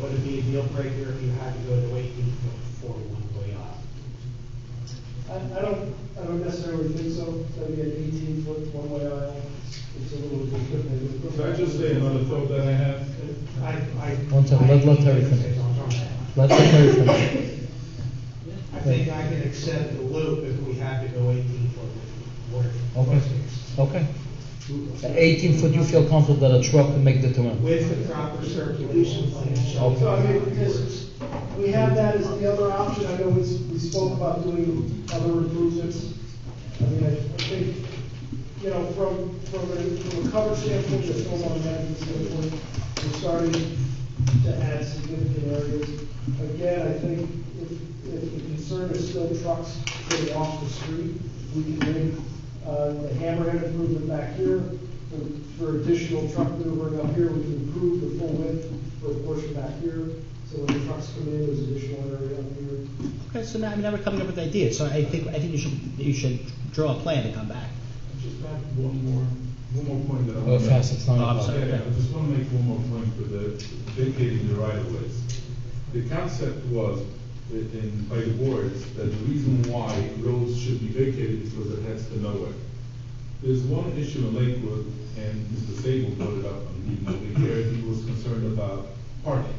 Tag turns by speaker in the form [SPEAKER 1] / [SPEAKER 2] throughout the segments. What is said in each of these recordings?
[SPEAKER 1] would it be a deal breaker if you had to go to eighteen before one way off?
[SPEAKER 2] I, I don't, I don't necessarily think so, I think an eighteen foot one-way aisle, it's a little bit different.
[SPEAKER 3] Can I just say another thought that I have?
[SPEAKER 1] I, I.
[SPEAKER 4] One second, let- let Terry
[SPEAKER 1] I-
[SPEAKER 4] finish. Let the Terry finish.
[SPEAKER 1] I think I can accept the loop if we had to go eighteen foot with work.
[SPEAKER 4] Okay, okay. At Eighteen foot, you feel comfortable that a truck can make the turn?
[SPEAKER 1] With the proper circulation plan. shall
[SPEAKER 2] So I mean, because we have that as the other option, I know we, s- we spoke about doing other improvements. I mean, I, I think, you know, from, from a, from a cover standpoint, a stormwater management standpoint, we're starting to add significant areas. Again, I think if, if the concern is still trucks getting off the street, we can make, uh, the hammerhead improvement back here, for- for additional truck maneuvering up here, we can improve the full width for a portion back here, so when the trucks come in, there's additional area up here.
[SPEAKER 5] Okay, so now, I mean, now we're coming up with ideas, so I think, I think you should, you should draw a plan and come back.
[SPEAKER 3] Just back one more, one more point that I
[SPEAKER 4] Oh,
[SPEAKER 3] want to make.
[SPEAKER 4] fast, it's nine
[SPEAKER 5] Oh, I'm
[SPEAKER 4] o'clock.
[SPEAKER 5] sorry.
[SPEAKER 3] Yeah, I just want to make one more point for the vacating the right of ways. The concept was, i- in, by the boards, that the reason why roads should be vacated is because it heads to nowhere. There's one issue in Lakewood, and Mr. Sable brought it up on the evening we here, he was concerned about parking.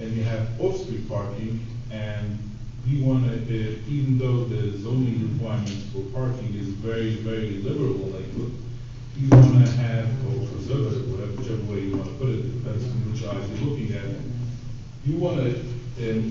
[SPEAKER 3] And you have off-street parking, and we want to, uh, even though the zoning requirements for parking is very, very liberal in Lakewood, you want to have, or preservative, whatever, whichever way you want to put it, depends on which eyes you're looking at. You want to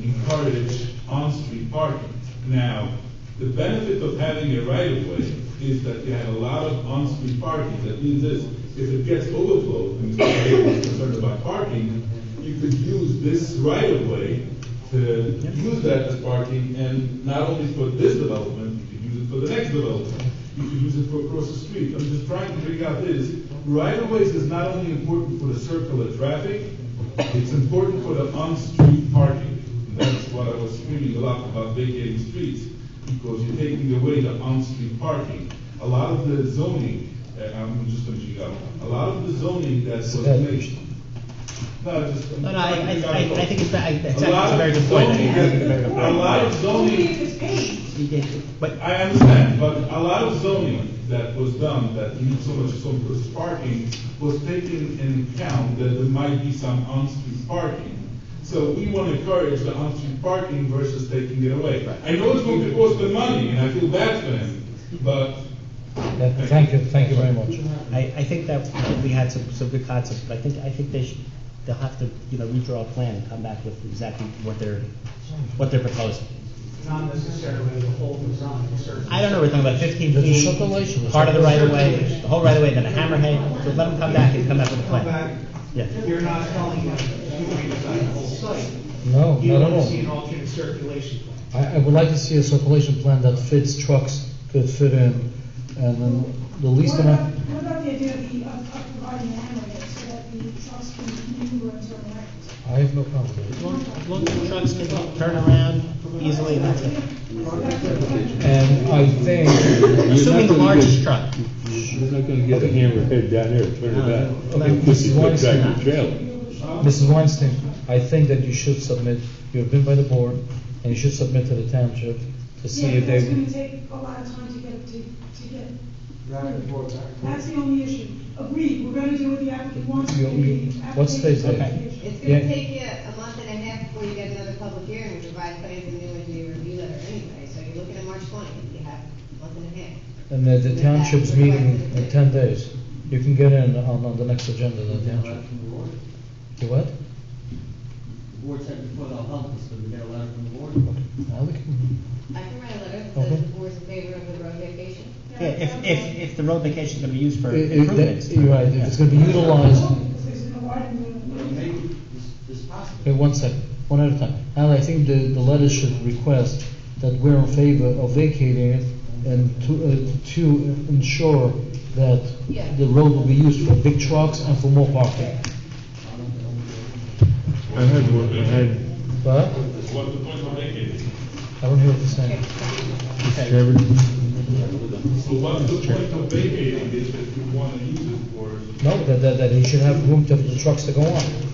[SPEAKER 3] encourage on-street parking. Now, the benefit of having a right-of-way is that you have a lot of on-street parking. That means this, if it gets overflowed, and Mr. Gable is concerned about parking, you could use this right-of-way to use that as parking, and not only for this development, you could use it for the next development. You could use it for across the street. I'm just trying to figure out this, right-of-ways is not only important for the circular traffic, it's important for the on-street parking. That's what I was screaming a lot about vacating streets, because you're taking away the on-street parking. A lot of the zoning, uh, I'm just finishing up, a lot of the zoning that was
[SPEAKER 4] Okay.
[SPEAKER 3] made. No, just. I'm
[SPEAKER 5] No, no, I,
[SPEAKER 3] trying to
[SPEAKER 5] I,
[SPEAKER 3] figure out
[SPEAKER 5] I I think it's, I, that's
[SPEAKER 3] A lot
[SPEAKER 5] actually a very
[SPEAKER 3] of
[SPEAKER 5] good point. I
[SPEAKER 3] zoning
[SPEAKER 5] think it's a
[SPEAKER 3] that- A
[SPEAKER 5] very good
[SPEAKER 3] lot of zoning
[SPEAKER 5] point. But,
[SPEAKER 3] I understand, but a lot of zoning that was done, that needs so much, so much parking, was taken in account that there might be some on-street parking. So we want to encourage the on-street parking versus taking it away. I know it's going to cost them money, and I feel bad for them, but
[SPEAKER 4] Yeah, Thank you, thank you very much.
[SPEAKER 5] I, I think that we had some, some good concepts, but I think, I think they should, they'll have to, you know, redraw a plan and come back with exactly what they're, what they're proposing.
[SPEAKER 1] Not necessarily the whole design, certainly.
[SPEAKER 5] I don't know, we're talking about fifteen
[SPEAKER 4] There's a
[SPEAKER 5] feet,
[SPEAKER 4] circulation.
[SPEAKER 5] part of the right of way, the whole right of way, then a hammerhead, so let them come back and come back with a
[SPEAKER 1] Come
[SPEAKER 5] plan.
[SPEAKER 1] back,
[SPEAKER 5] Yeah.
[SPEAKER 1] you're not telling them you redesign the whole site.
[SPEAKER 4] No,
[SPEAKER 1] You
[SPEAKER 4] not at
[SPEAKER 1] want to see an
[SPEAKER 4] all.
[SPEAKER 1] alternate circulation plan.
[SPEAKER 4] I, I would like to see a circulation plan that fits trucks, could fit in, and then the least
[SPEAKER 6] What about,
[SPEAKER 4] amount.
[SPEAKER 6] what about the idea of the, of of providing hammerheads so that the trucks can maneuver and turn around?
[SPEAKER 4] I have no problem with
[SPEAKER 5] As
[SPEAKER 4] it.
[SPEAKER 5] long, as long as the trucks can turn around easily, and that's it.
[SPEAKER 4] And I think,
[SPEAKER 5] Assuming the largest truck.
[SPEAKER 7] You're not gonna get a hammerhead down there, turn it back.
[SPEAKER 5] Uh,
[SPEAKER 4] Okay,
[SPEAKER 7] This is
[SPEAKER 4] Mrs.
[SPEAKER 7] what
[SPEAKER 4] Weinstein.
[SPEAKER 7] tractor trailer.
[SPEAKER 4] Mrs. Weinstein, I think that you should submit, you have been by the board, and you should submit to the township to see
[SPEAKER 6] Yeah,
[SPEAKER 4] if
[SPEAKER 6] but that's
[SPEAKER 4] they,
[SPEAKER 6] gonna take a lot of time to get, to, to get.
[SPEAKER 2] Back and forth, back and forth.
[SPEAKER 6] That's the only issue. Agreed, we're gonna do what the applicant wants,
[SPEAKER 4] You-
[SPEAKER 6] but
[SPEAKER 4] you-
[SPEAKER 6] the
[SPEAKER 4] what's the-
[SPEAKER 6] application is the
[SPEAKER 4] okay.
[SPEAKER 6] issue.
[SPEAKER 8] It's
[SPEAKER 4] Yeah.
[SPEAKER 8] gonna take you a month and a half before you get another public hearing, which provides plans and new engineer review letter anyway, so you're looking at March twentieth, you have a month and a half.
[SPEAKER 4] and that the township's meeting in ten days. You can get in on, on the next agenda, of the township.
[SPEAKER 9] from the board.
[SPEAKER 4] You what?
[SPEAKER 9] The board said before they'll help us, but we got a letter from the board.
[SPEAKER 4] Now we can-
[SPEAKER 8] I can write a letter that
[SPEAKER 4] Okay.
[SPEAKER 8] says the board's in favor of the road vacation.
[SPEAKER 5] Yeah, if, if, if the road vacation's gonna be used for
[SPEAKER 4] i- i-
[SPEAKER 5] improvements.
[SPEAKER 4] Uh, that- You're right, if it's gonna be utilized,
[SPEAKER 6] Because there's no widening of the road.
[SPEAKER 9] Maybe this, this possible.
[SPEAKER 4] okay, one second, one at a time. And I think the, the letter should request that we're in favor of vacating it and to, uh, to ensure that
[SPEAKER 8] Yeah.
[SPEAKER 4] the road will be used for big trucks and for more parking.
[SPEAKER 3] I had one, I had.
[SPEAKER 4] But,
[SPEAKER 3] What the point I'm making?
[SPEAKER 4] I don't hear what you're saying.
[SPEAKER 3] So what's the point of vacating this if you want to use it for?
[SPEAKER 4] No, that, that, that he should have room to, for the trucks to go on.